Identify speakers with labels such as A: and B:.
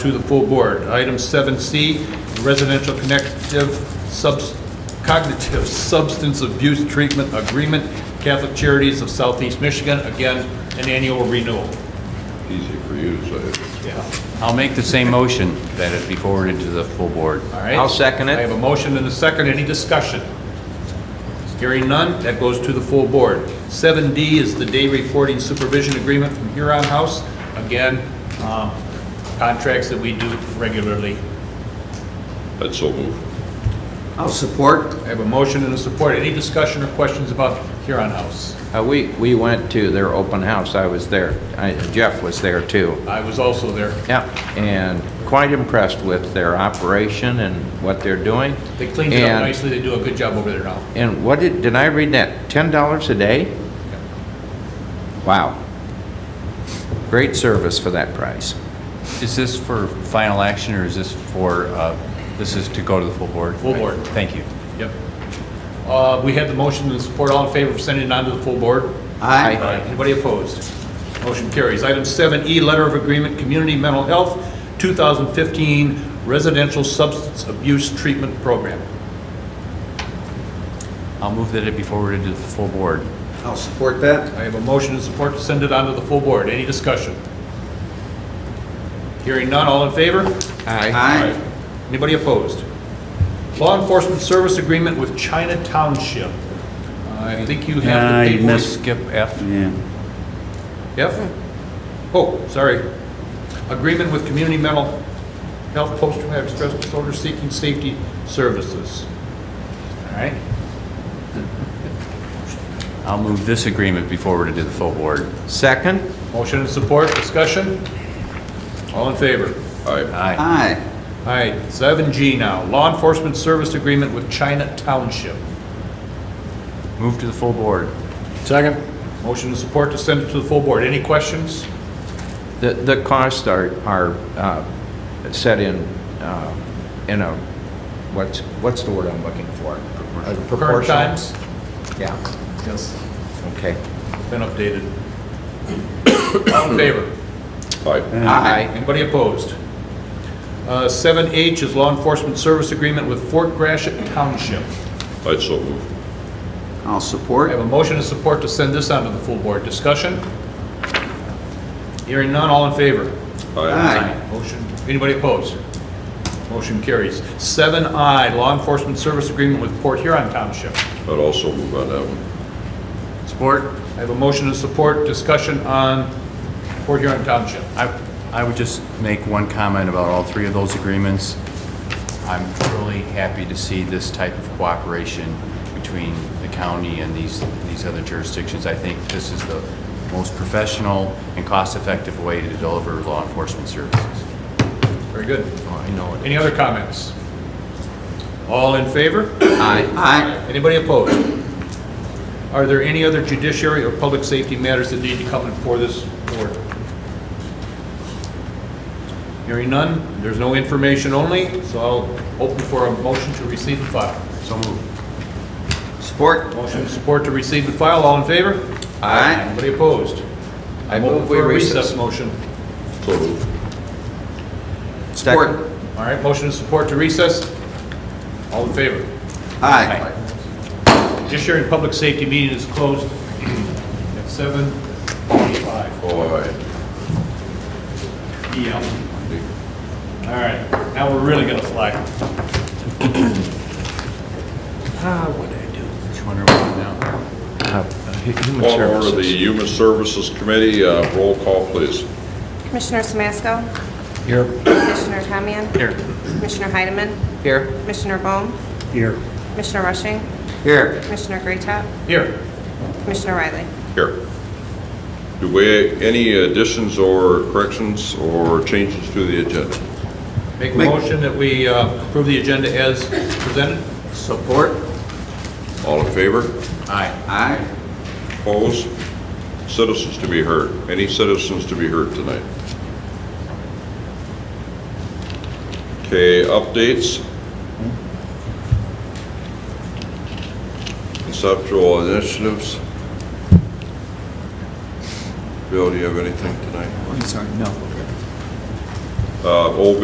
A: to the full board. Item 7C, residential connective subs- cognitive substance abuse treatment agreement, Catholic Charities of Southeast Michigan, again, an annual renewal.
B: Easy for you to say.
A: Yeah.
C: I'll make the same motion that it be forwarded to the full board.
A: All right?
D: I'll second it.
A: I have a motion and a second. Any discussion? Hearing none, that goes to the full board. 7D is the day reporting supervision agreement from Huron House. Again, um, contracts that we do regularly.
B: That's so moved.
D: I'll support.
A: I have a motion and a support. Any discussion or questions about Huron House?
D: Uh, We, we went to their open house, I was there, I- Jeff was there too.
A: I was also there.
D: Yep, and quite impressed with their operation and what they're doing.
A: They cleaned it up
D: And-
A: nicely. They do a good job over there now.
D: And what did, did I read that, $10 a day? Wow. Great service for that price.
C: Is this for final action, or is this for, uh, this is to go to the full board?
A: Full board.
C: Thank you.
A: Yep. Uh, We have the motion and support. All in favor of sending it on to the full board?
D: Aye.
A: Anybody opposed? Motion carries. Item 7E, Letter of Agreement, Community Mental Health, 2015 Residential Substance Abuse Treatment Program.
C: I'll move that it be forwarded to the full board.
D: I'll support that.
A: I have a motion and support to send it on to the full board. Any discussion? Hearing none, all in favor?
D: Aye.
A: Anybody opposed? Law Enforcement Service Agreement with China Township. I think you
C: Ah,
A: have the
C: you
A: paperwork.
C: missed Skip F.
E: Yeah,
A: Yep. Oh, sorry. Agreement with Community Mental Health Post-Traumatic Stress Disorder Seeking Safety Services. All right.
C: I'll move this agreement be forwarded to the full board.
D: Second?
A: Motion and support, discussion? All in favor?
B: Aye.
C: Aye.
E: aye,
A: All right, 7G now. Law Enforcement Service Agreement with China Township.
C: Move to the full board.
A: Second. Motion and support to send it to the full board. Any questions?
D: The, the costs are, are uh, set in, uh, in a, what's, what's the word I'm looking for? Proportional.
A: Current times?
D: Yeah,
A: Yes.
D: okay.
A: Been updated. All in favor?
B: Aye.
D: Aye.
A: Anybody opposed? Uh, 7H is Law Enforcement Service Agreement with Fort Gratiot Township.
B: That's so moved.
E: I'll
A: I have
E: support.
A: a motion and support to send this on to the full board. Discussion? Hearing none, all in favor?
E: Aye.
A: Motion, anybody opposed? Motion carries. 7I, Law Enforcement Service Agreement with Port Huron Township.
B: I'd also move on that one.
C: Support.
A: I have a motion and support, discussion on Port Huron Township.
C: I, I would just make one comment about all three of those agreements. I'm truly happy to see this type of cooperation between the county and these, these other jurisdictions. I think this is the most professional and cost-effective way to deliver law enforcement services.
A: Very good. Oh,
C: I know it.
A: Any other comments? All in favor?
E: Aye.
A: Anybody opposed? Are there any other judiciary or public safety matters that need to come before this board? Hearing none, there's no information only, so I'll open for a motion to receive and file.
C: So moved.
E: Support.
A: Motion to support to receive and file, all in favor?
D: Aye.
A: Anybody opposed?
D: I
A: I'm
D: move
A: open
D: we
A: for a
D: recess.
A: recess motion.
B: So moved.
D: Second.
A: All right, motion to support to recess, all in favor?
E: Aye.
A: Judiciary and public safety meeting is closed at 7:45.
B: Oh, aye.
A: Yeah. All right, now we're really gonna fly.
C: Which one are we on now?
D: Uh, Human
B: Call to order the
D: Services.
B: Human Services Committee, uh, roll call, please.
F: Commissioner Samasco?
D: Here.
F: Commissioner Tamian?
C: Here.
F: Commissioner Heidemann?
D: Here.
F: Commissioner Bohm?
D: Here.
F: Commissioner Rushing?
D: Here.
F: Commissioner Greatop?
A: Here,
F: Commissioner Riley?
B: Here. Do we, any additions or corrections or changes to the agenda?
A: make a motion that we uh, approve the agenda as presented.
E: Support.
B: All in favor?
C: Aye.
E: Aye.
B: Opposed? Citizens to be heard. Any citizens to be heard tonight? Okay, updates. Conceptual initiatives. Bill, do you have anything tonight?
E: I'm sorry, no.
B: Uh, Old